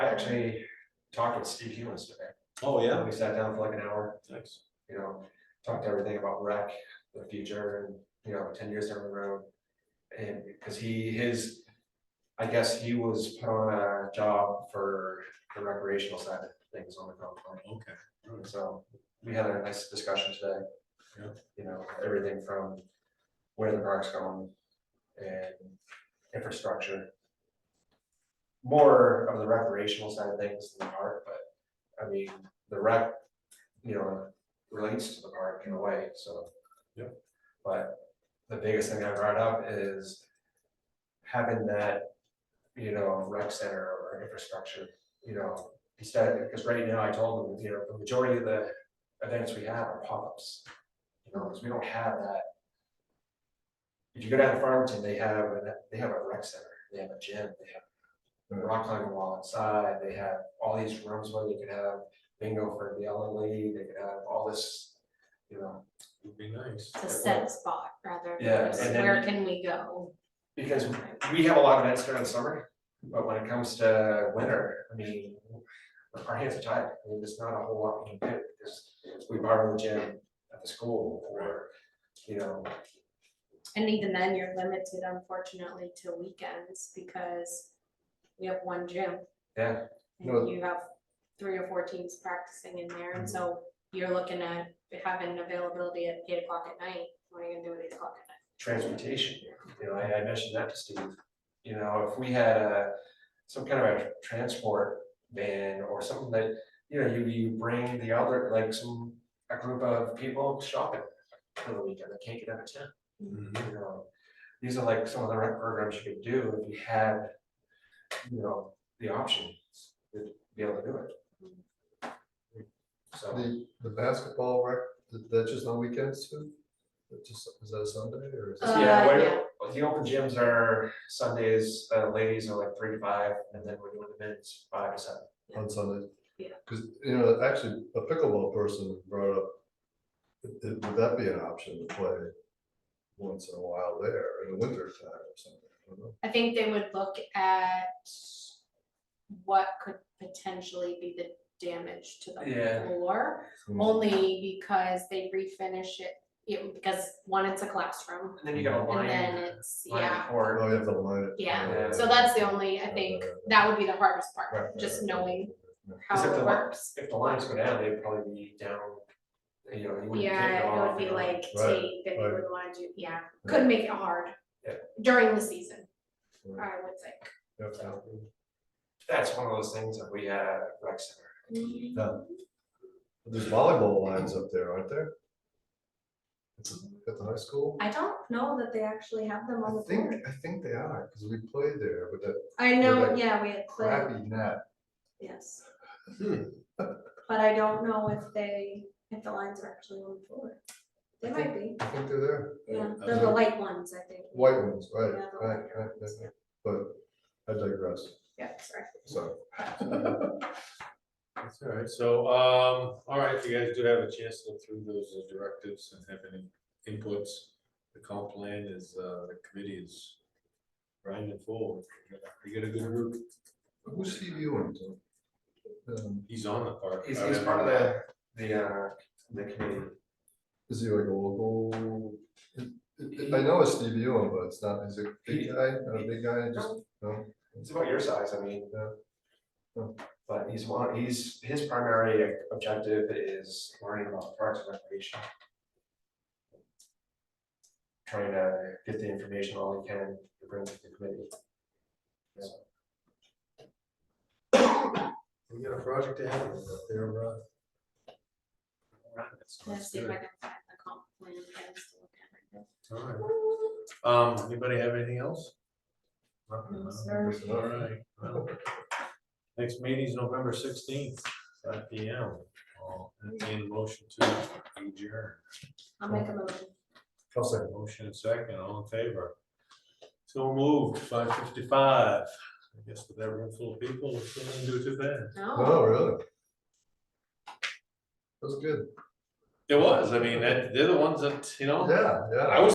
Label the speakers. Speaker 1: actually talked with Steve Humans today.
Speaker 2: Oh, yeah,
Speaker 1: We sat down for like an hour,
Speaker 2: thanks.
Speaker 1: you know, talked everything about rec, the future and, you know, ten years down the road. And because he, his, I guess he was put on a job for the recreational side of things on the golf course.
Speaker 2: Okay,
Speaker 1: And So we had a nice discussion today.
Speaker 2: Yeah.
Speaker 1: You know, everything from where the park's going and infrastructure. More of the recreational side of things than the park, but I mean, the rec, you know, relates to the park in a way, so.
Speaker 2: Yeah.
Speaker 1: But the biggest thing I brought up is having that, you know, rec center or infrastructure, you know, instead, because right now I told them, you know, the majority of the events we have are pop-ups. You know, because we don't have that. If you go down to Farmington, they have, an- they have a rec center, they have a gym, they have rock climbing wall inside, they have all these rooms where they could have bingo for the elderly, they could have all this, you know,
Speaker 2: would be nice.
Speaker 3: It's a set spot rather
Speaker 1: Yeah,
Speaker 3: than just
Speaker 1: and then
Speaker 3: where
Speaker 1: you-
Speaker 3: can we go?
Speaker 1: because
Speaker 3: Right.
Speaker 1: we have a lot of events during the summer, but when it comes to winter, I mean, our hands are tied. I mean, there's not a whole lot we can do because we borrow the gym at the school or, you know,
Speaker 3: And even then, you're limited unfortunately to weekends because we have one gym.
Speaker 1: Yeah. No.
Speaker 3: And you have three or four teams practicing in there,
Speaker 1: Mhm.
Speaker 3: and so you're looking at having availability at eight o'clock at night, what are you gonna do at eight o'clock at
Speaker 1: transportation. You know, I, I mentioned that to Steve. You know, if we had a, some kind of a transport van or something that, you know, you, you bring the other, like some, a group of people shopping for the weekend that can't get out of town.
Speaker 2: Mhm.
Speaker 1: you know, these are like some of the rec programs you could do if you had, you know, the option to be able to do it. So,
Speaker 4: The, the basketball rec, th- that's just on weekends too? That just, is that a Sunday or is
Speaker 3: Uh,
Speaker 4: that?
Speaker 1: yeah,
Speaker 3: yeah.
Speaker 1: when- the open gyms are Sundays, uh, ladies are like three to five, and then we're doing the men's five to seven.
Speaker 4: on Sunday?
Speaker 3: Yeah.
Speaker 4: Cause, you know, actually, a pickleball person brought up, th- th- would that be an option to play once in a while there in the winter time or something? I don't know.
Speaker 3: night? I think they would look at what could potentially be the damage to the
Speaker 1: Yeah.
Speaker 3: floor. Only because they refinish it, it, because one, it's a classroom,
Speaker 1: And then you got a
Speaker 3: and then
Speaker 1: line,
Speaker 3: it's,
Speaker 1: line
Speaker 3: yeah,
Speaker 1: court,
Speaker 4: Oh, you have to line it.
Speaker 3: Yeah.
Speaker 4: uh,
Speaker 3: so that's the only, I think, that would be the hardest
Speaker 4: right,
Speaker 3: part,
Speaker 4: right,
Speaker 3: just
Speaker 4: right,
Speaker 3: knowing
Speaker 4: right, right.
Speaker 3: how
Speaker 1: Except the
Speaker 3: it
Speaker 1: lo-
Speaker 3: works.
Speaker 1: if the lines go down, they'd probably be down, you know, you wouldn't take it
Speaker 3: Yeah, it would
Speaker 1: off.
Speaker 3: be
Speaker 1: you know.
Speaker 3: like
Speaker 4: Right,
Speaker 3: tape, if you
Speaker 4: right.
Speaker 3: would wanna do, yeah,
Speaker 4: Yeah.
Speaker 3: could make it hard.
Speaker 1: Yeah.
Speaker 3: During the season,
Speaker 4: Right.
Speaker 3: I would think.
Speaker 4: Yep,
Speaker 1: So, That's one of those things that we had at rec center.
Speaker 4: yeah. There's volleyball lines up there, aren't there? It's at the high school?
Speaker 3: I don't know that they actually have them on
Speaker 4: I
Speaker 3: the
Speaker 4: think,
Speaker 3: floor.
Speaker 4: I think they are, because we played there with that
Speaker 3: I know,
Speaker 4: like
Speaker 3: yeah, we had played,
Speaker 4: crappy net.
Speaker 3: yes,
Speaker 2: Hmm,
Speaker 3: but I don't know if they, if the lines are actually on the floor. They
Speaker 4: I
Speaker 3: might be.
Speaker 4: I think they're there.
Speaker 3: Yeah,
Speaker 2: uh, I
Speaker 3: they're the
Speaker 2: don't-
Speaker 3: light ones, I think.
Speaker 4: White ones, right,
Speaker 3: Yeah, the
Speaker 4: right,
Speaker 3: white
Speaker 4: right,
Speaker 3: ones,
Speaker 4: right, right. but I digress,
Speaker 3: Yeah, sorry.
Speaker 4: so.
Speaker 2: That's all right, so, um, all right, if you guys do have a chance to look through those uh, directives and have any inputs, the comp plan is, uh, the committee is grinding forward. You got a good group,
Speaker 4: Who's Steve Ewan? Um,
Speaker 2: he's on the park.
Speaker 1: He's, he's part of the, the, uh, the committee.
Speaker 4: Is he like a local? I- I I know it's Steve Ewan, but it's not, he's a
Speaker 1: He-
Speaker 4: big guy, not a big guy, just,
Speaker 1: It's
Speaker 4: no,
Speaker 1: about your size, I mean,
Speaker 4: Yeah. Yeah.
Speaker 1: but he's one, he's, his primary objective is learning about parks and recreation. Trying to get the information all he can to bring to the committee.
Speaker 2: We got a project to handle up there, uh. that's-
Speaker 3: Let's
Speaker 2: that's
Speaker 3: see if
Speaker 2: good.
Speaker 3: I can find the comp plan plans to look at right
Speaker 2: All right.
Speaker 3: now.
Speaker 2: Um, anybody have anything else? Nothing,
Speaker 3: No,
Speaker 2: huh?
Speaker 3: sir.
Speaker 2: All right, well, next meeting's November sixteenth, five P M. I'll entertain a motion to adjourn.
Speaker 3: I'll make a motion.
Speaker 2: I'll Motion and second, all in favor. So moved, five fifty-five. I guess with that room full of people, it's gonna do too bad.
Speaker 3: No,
Speaker 4: no, really. That was good,
Speaker 2: It was, I mean, that, they're the ones that, you know.
Speaker 4: yeah, yeah.
Speaker 2: I was